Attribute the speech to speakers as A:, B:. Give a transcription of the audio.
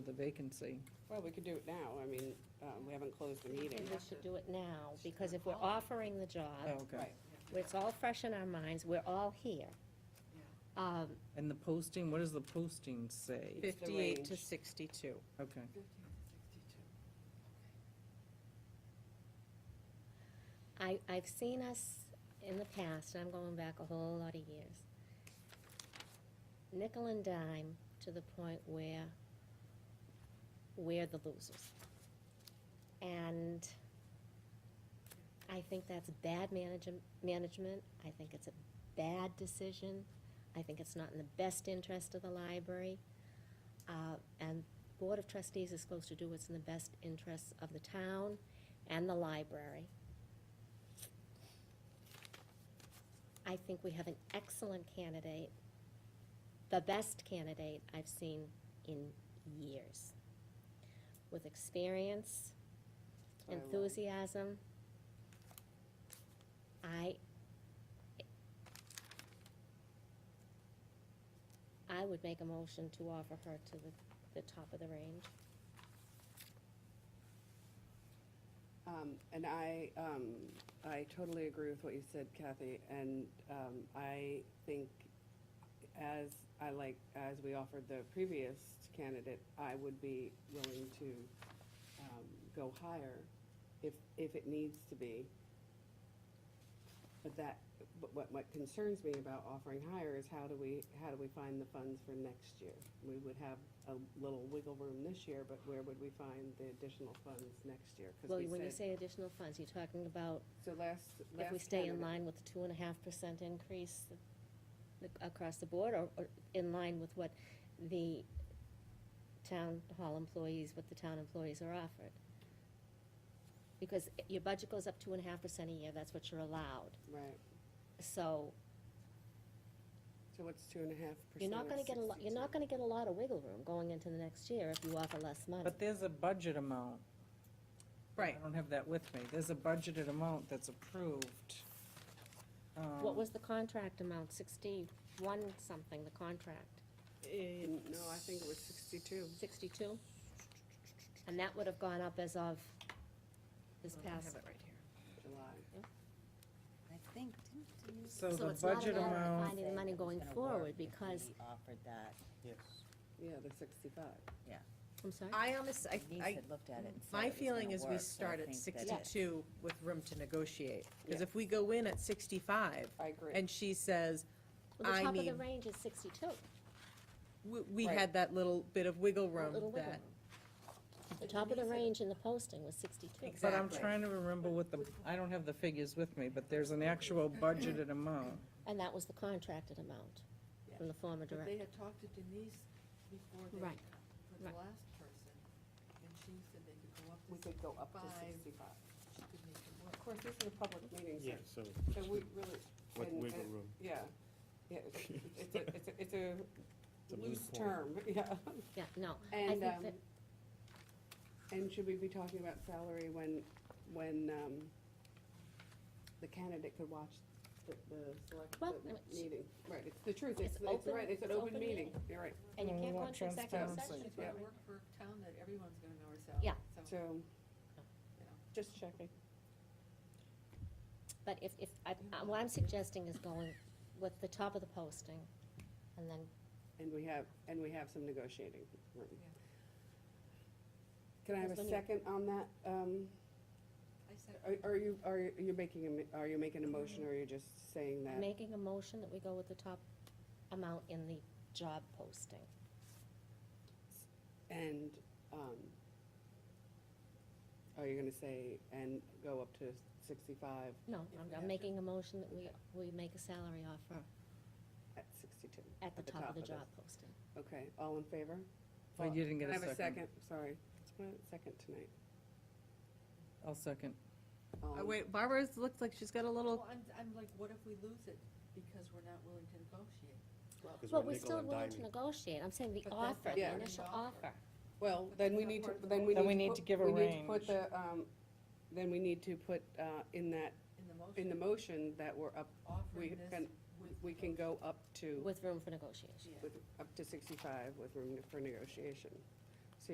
A: the vacancy.
B: Well, we could do it now, I mean, uh, we haven't closed the meeting.
C: And we should do it now, because if we're offering the job,
A: okay.
B: Right,
C: it's all fresh in our minds, we're all here. Um,
A: And the posting, what does the posting say?
B: Fif-
D: Fifty-eight to
B: range.
D: sixty-two.
A: Okay.
C: I, I've seen us in the past, I'm going back a whole lot of years, nickel and dime to the point where we're the losers. And I think that's bad manage- management, I think it's a bad decision, I think it's not in the best interest of the library. Uh, and Board of Trustees is supposed to do what's in the best interests of the town and the library. I think we have an excellent candidate, the best candidate I've seen in years, with experience,
B: That's what I love.
C: enthusiasm. I, I would make a motion to offer her to the, the top of the range.
B: Um, And I, um, I totally agree with what you said, Kathy, and um, I think as, I like, as we offered the previous candidate, I would be willing to um, go higher if, if it needs to be. But that, but what, what concerns me about offering higher is how do we, how do we find the funds for next year? We would have a little wiggle room this year, but where would we find the additional funds next year? 'Cause
C: Well,
B: we
C: when you
B: said-
C: say additional funds, you're talking about
B: So last,
C: if we
B: last
C: stay in
B: candidate-
C: line with the two and a half percent increase th- across the board, or, or in line with what the town hall employees, what the town employees are offered. Because i- your budget goes up two and a half percent a year, that's what you're allowed,
B: Right,
C: so
B: so what's two and a half percent?
C: you're not gonna get a lot, you're not gonna get a lot of wiggle room going into the next year if you offer less money.
A: But there's a budget amount. I don't have that with me. There's a budgeted amount that's approved. Um,
C: What was the contract amount, sixty-one something, the contract?
B: Uh, No, I think it was sixty-two.
C: 62? And that would have gone up as of this
D: I have
C: past,
D: it right here.
B: July.
E: I think, didn't you?
A: So
C: So
A: the
C: it's not
A: budget
C: about
A: amount,
C: finding- the
E: say
C: money
E: that was
C: going
E: gonna
C: forward
E: work if
C: because-
E: we Offered that.
F: Yes.
B: Yeah, the sixty-five.
C: I'm sorry?
D: I honestly,
E: Denise
D: I, I,
E: had looked at it and said
D: my
E: it was
D: feeling
E: gonna
D: is we
E: work, so I
D: start at
E: think that-
D: sixty-two with room to negotiate. Because
B: Yeah.
D: if we go in at sixty-five
B: I agree.
D: and she says,
C: Well, the
D: I
C: top of the
D: mean-
C: range is 62.
D: we, we
B: Right.
D: had that little bit of wiggle
C: a
D: room
C: little wiggle
D: that.
C: room. The top of the range in the posting was 62.
A: but I'm
D: Exactly.
A: trying to remember what the, I don't have the figures with me, but there's an actual budgeted amount.
C: And that was the contracted amount from the former
G: But they
C: director.
G: had talked to Denise before they,
C: Right.
G: for
C: right.
G: the last person, and she said they could go up
B: We
G: to
B: could go up to
G: Five.
B: sixty-five.
G: She could make it work.
B: Of course, this is a public meeting,
F: Yeah,
B: so-
F: so
B: so we really.
F: what
B: and-
F: wiggle
B: and-
F: room?
B: Yeah, yeah, it's, it's a, it's a, it's a
F: a moot
B: loose
F: point.
B: term, yeah.
C: Yeah, no. I think
B: And, um,
C: that-
B: and should we be talking about salary when, when, um, the candidate could watch the, the select,
C: Well,
B: the
C: I mean, she-
B: meeting? Right, it's the truth, it's,
C: It's
B: it's
C: open-
B: right, it's an
C: it's
B: open
C: open
B: meeting,
C: meeting.
B: you're right.
C: And you
A: Mm,
C: can't
A: we
C: go
A: want
C: into executive
A: transparency.
C: session.
G: She's gonna
B: Yeah.
G: work for a town that everyone's gonna know herself.
C: Yeah.
B: So,
G: you know.
B: just checking.
C: But if, if, I- I- what I'm suggesting is going with the top of the posting, and then
B: And we have, and we have some negotiating room.
G: Yeah.
B: Can I have a
C: That's when you-
B: second on that? Um,
G: I said,
B: are- Are you, are you- you're making, a mi- are you making a motion, or are you just saying that?
C: making a motion that we go with the top amount in the job posting.
B: And, um, are you gonna say, and go up to sixty-five
C: No,
G: If
C: I'm,
G: we have
C: I'm
G: to.
C: making a motion that we, we make a salary offer
B: at sixty-two?
C: at the top of the
B: this.
C: job posting.
B: Okay, all in favor?
A: I didn't get
B: Can I
A: a
B: have a
A: second.
B: second? Sorry, it's my second tonight. Um,
A: I'll second.
B: All
D: Uh,
B: in-
D: Wait, Barbara's looks like she's got a little,
G: well, I'm, I'm like, what if we lose it because we're not willing to negotiate?
F: because
C: Well,
F: we're
C: we're
F: nickel
C: still
F: and
C: willing
F: diming.
C: to negotiate, I'm saying the
G: But that's
C: offer,
B: not
C: the
B: part of
C: initial
G: the offer.
C: offer.
B: Well,
G: But
B: then we
G: that's
B: need
G: not
B: to,
G: part of the
B: then we need.
A: Then we need
B: put-
A: to give a
B: We need to put
A: range.
B: the, um, then we need to put, uh, in that,
G: In the
B: in the
G: motion,
B: motion that we're up, we
G: offering this
B: can-
G: with.
B: we can go up to,
C: With room for negotiation.
G: Yeah.
B: with, up to sixty-five with room for negotiation.